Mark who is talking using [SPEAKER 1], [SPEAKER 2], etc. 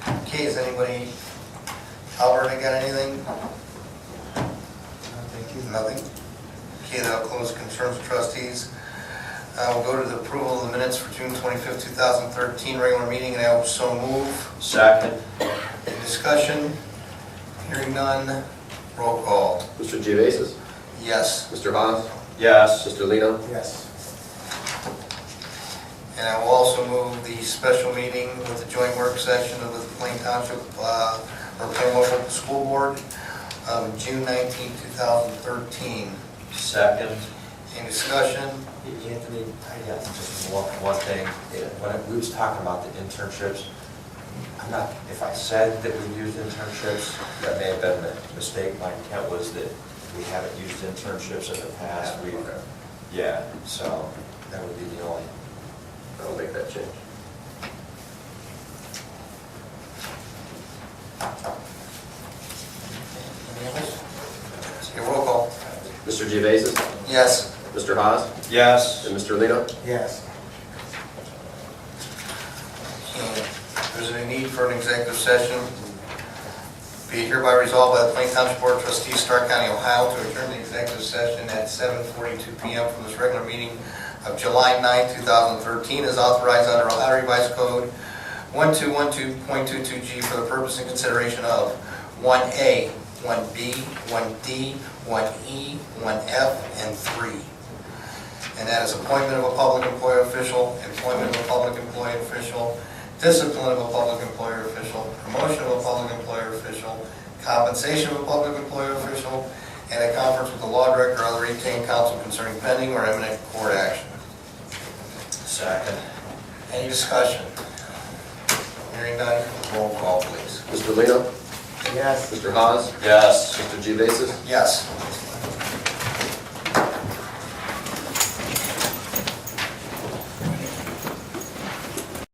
[SPEAKER 1] Has anybody, Alberta got anything? Thank you. Nothing? Okay, that'll close concerns of trustees. Uh, We'll go to the approval of the minutes for June 25th, 2013, regular meeting, and I will so move.
[SPEAKER 2] Second.
[SPEAKER 1] Any discussion? Hearing none, roll call.
[SPEAKER 3] Mr. Geovasis?
[SPEAKER 1] Yes.
[SPEAKER 3] Mr. Haas?
[SPEAKER 2] Yes.
[SPEAKER 3] Mr. Lino?
[SPEAKER 4] Yes.
[SPEAKER 1] And I will also move the special meeting with the joint work session of the Plain Township, uh, or Plain Local School Board, um, June 19, 2013.
[SPEAKER 2] Second.
[SPEAKER 1] Any discussion?
[SPEAKER 4] Anthony, I got just one, one thing. When we was talking about the internships, I'm not, if I said that we used internships, that may have been a mistake. My intent was that we haven't used internships in the past. We, yeah, so that would be the only.
[SPEAKER 3] I'll make that change.
[SPEAKER 1] Any others? Okay, roll call.
[SPEAKER 3] Mr. Geovasis?
[SPEAKER 1] Yes.
[SPEAKER 3] Mr. Haas?
[SPEAKER 2] Yes.
[SPEAKER 3] And Mr. Lino?
[SPEAKER 4] Yes.
[SPEAKER 1] And Uh, There's a need for an executive session. Be hereby resolved by the Plain Township Board of Trustees, Stark County, Ohio, to adjourn the executive session at 7:42 PM from this regular meeting of July 9, 2013, as authorized under Ohio Revised Code 1212.22G for the purpose and consideration of 1A, 1B, 1D, 1E, 1F, E, and 3 and that is appointment of a public employer official, employment of a public employee official, discipline of a public employer official, promotion of a public employer official, compensation of a public employer official, and a conference with the law director or other retained counsel concerning pending or imminent court action.
[SPEAKER 2] Second.
[SPEAKER 1] Any discussion? Hearing none, roll call, please.
[SPEAKER 3] Mr. Lino?
[SPEAKER 4] Yes.
[SPEAKER 3] Mr. Haas?
[SPEAKER 2] Yes.
[SPEAKER 3] Mr. Geovasis?
[SPEAKER 1] Yes.